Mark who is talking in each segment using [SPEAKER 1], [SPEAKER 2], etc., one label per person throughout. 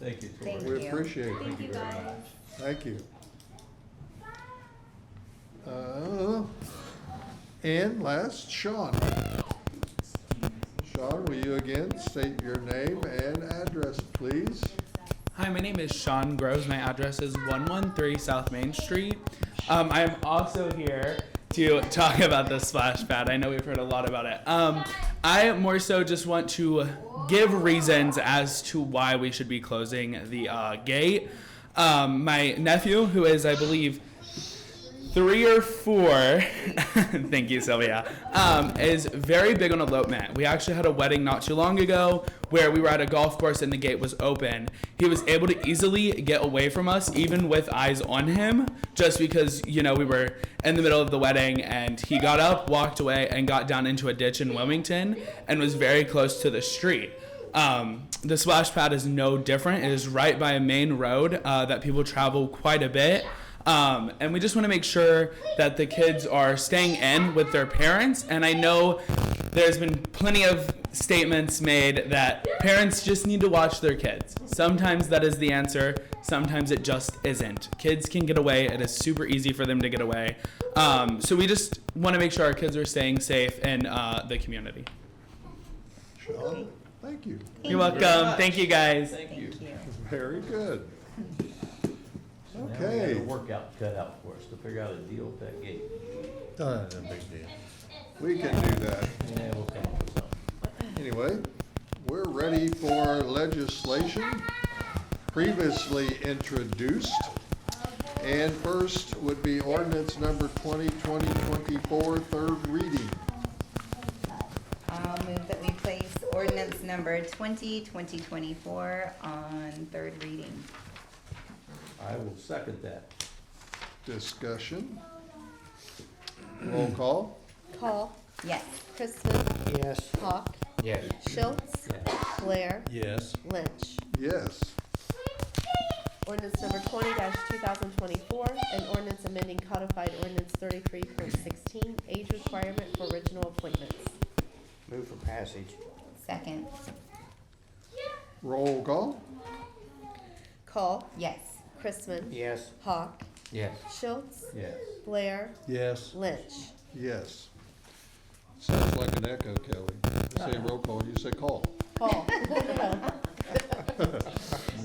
[SPEAKER 1] Thank you, Tori.
[SPEAKER 2] Thank you.
[SPEAKER 3] We appreciate it.
[SPEAKER 2] Thank you,
[SPEAKER 1] very
[SPEAKER 2] guys.
[SPEAKER 1] much.
[SPEAKER 3] Thank you. Uh, And last, Sean. Sean, will you again state your name and address, please?
[SPEAKER 4] Hi, my name is Sean Groves. My address is 113 South Main Street. Um, I'm also here to talk about the splash pad. I know we've heard a lot about it. Um, I more so just want to give reasons as to why we should be closing the uh, gate. Um, my nephew, who is, I believe, three or four. thank you, Sylvia. Um, is very big on elopement. We actually had a wedding not too long ago where we were at a golf course and the gate was open. He was able to easily get away from us, even with eyes on him, just because you know we were in the middle of the wedding and he got up, walked away, and got down into a ditch in Wilmington and was very close to the street. Um, the splash pad is no different. It is right by a main road uh, that people travel quite a bit. Um, and we just want to make sure that the kids are staying in with their parents. And I know there's been plenty of statements made that parents just need to watch their kids. Sometimes that is the answer, sometimes it just isn't. Kids can get away, it is super easy for them to get away. Um, so we just want to make sure our kids are staying safe in uh, the community.
[SPEAKER 3] Sean, thank you.
[SPEAKER 4] You're
[SPEAKER 2] Thank you.
[SPEAKER 4] welcome. Thank you guys.
[SPEAKER 1] Thank you.
[SPEAKER 2] Thank you.
[SPEAKER 3] Very good.
[SPEAKER 1] So now we got a
[SPEAKER 3] Okay.
[SPEAKER 1] workout cut out for us to figure out a deal with that gate.
[SPEAKER 5] Oh, that's a big deal.
[SPEAKER 3] We can do that.
[SPEAKER 1] Yeah, we'll come up with something.
[SPEAKER 3] Anyway, we're ready for legislation previously introduced. And first would be ordinance number 2020-24, third reading.
[SPEAKER 2] I'll move Um, that we place ordinance number 20, 2024 on third reading.
[SPEAKER 1] I will second that.
[SPEAKER 3] Discussion. Roll call.
[SPEAKER 6] Call
[SPEAKER 2] Yes.
[SPEAKER 6] Kristen
[SPEAKER 5] Yes.
[SPEAKER 6] Hawk.
[SPEAKER 5] Yes.
[SPEAKER 6] Schultz.
[SPEAKER 1] Yeah.
[SPEAKER 6] Blair.
[SPEAKER 5] Yes.
[SPEAKER 6] Lynch.
[SPEAKER 3] Yes.
[SPEAKER 6] Ordinance number twenty two thousand twenty-four, an ordinance amending codified ordinance thirty-three point sixteen, age requirement for original appointments.
[SPEAKER 5] Move for passage.
[SPEAKER 2] Second.
[SPEAKER 3] Roll call.
[SPEAKER 6] Call
[SPEAKER 2] Yes.
[SPEAKER 6] Chrisman.
[SPEAKER 5] Yes.
[SPEAKER 6] Hawk.
[SPEAKER 5] Yes.
[SPEAKER 6] Schultz.
[SPEAKER 1] Yes.
[SPEAKER 6] Blair.
[SPEAKER 5] Yes.
[SPEAKER 6] Lynch.
[SPEAKER 3] Yes. Sounds like an echo, Kelly. I say roll call, you say call.
[SPEAKER 6] Call.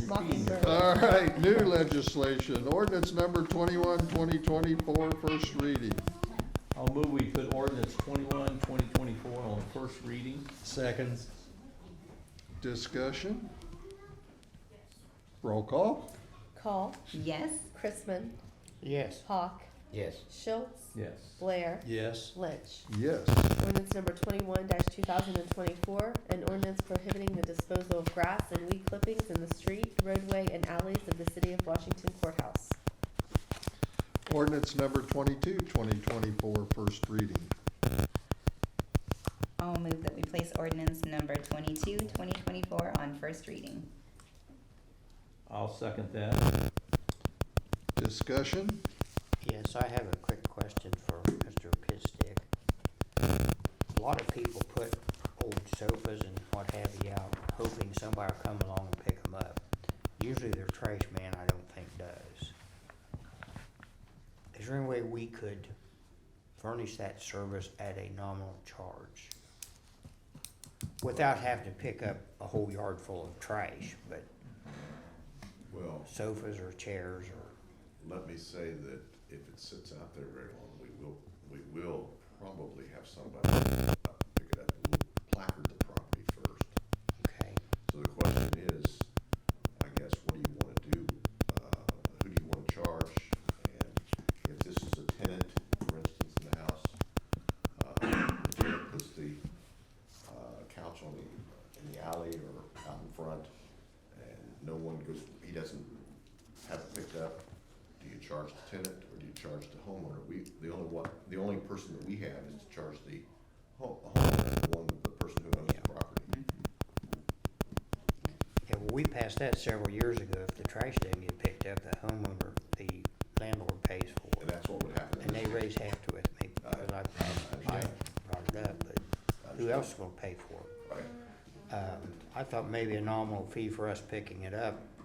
[SPEAKER 6] Mockingbird.
[SPEAKER 3] All right, new legislation, ordinance number 21, 2024, first reading.
[SPEAKER 1] I'll move we put ordinance 21, 2024 on first reading.
[SPEAKER 5] Second.
[SPEAKER 3] Discussion? Roll call?
[SPEAKER 6] Call
[SPEAKER 2] Yes.
[SPEAKER 6] Chrisman.
[SPEAKER 5] Yes.
[SPEAKER 6] Hawk.
[SPEAKER 5] Yes.
[SPEAKER 6] Schultz.
[SPEAKER 1] Yes.
[SPEAKER 6] Blair.
[SPEAKER 5] Yes.
[SPEAKER 6] Lynch.
[SPEAKER 3] Yes.
[SPEAKER 6] Ordinance number twenty-one two thousand and twenty-four, an ordinance prohibiting the disposal of grass and weed clippings in the street, roadway, and alleys of the city of Washington courthouse.
[SPEAKER 3] Ordinance number 22, 2024, first reading.
[SPEAKER 2] I'll move that we place ordinance number 22, 2024 on first reading.
[SPEAKER 1] I'll second that.
[SPEAKER 3] Discussion?
[SPEAKER 7] Yes, I have a quick question for Mr. Pitstick. A lot of people put old sofas and what have you out, hoping somebody will come along and pick them up. Usually their trash man, I don't think does. Is there any way we could furnish that service at a nominal charge? Without having to pick up a whole yard full of trash, but
[SPEAKER 8] Well,
[SPEAKER 7] sofas or chairs or,
[SPEAKER 8] let me say that if it sits out there very long, we will, we will probably have somebody uh, pick it up, We'll placard the property first.
[SPEAKER 7] okay?
[SPEAKER 8] So the question is, I guess, what do you wanna do? Uh, who do you wanna charge? And if this is a tenant, for instance, in the house, uh, the tenant puts the, uh, couch on the, in the alley or out in front, and no one goes, he doesn't have it picked up, do you charge the tenant or do you charge the homeowner? We, the only one, the only person that we have is to charge the home, homeowner, the one, the person who owns the property.
[SPEAKER 7] Yeah, well, we passed that several years ago. If the trash didn't get picked up, the homeowner, the landlord pays for
[SPEAKER 8] And
[SPEAKER 7] it.
[SPEAKER 8] that's what would happen. in
[SPEAKER 7] And
[SPEAKER 8] this
[SPEAKER 7] they
[SPEAKER 8] case.
[SPEAKER 7] raise half to it, maybe, because I, I brought it up, but who else is gonna pay for it?
[SPEAKER 8] Right.
[SPEAKER 7] Um, I thought maybe a nominal fee for us picking it up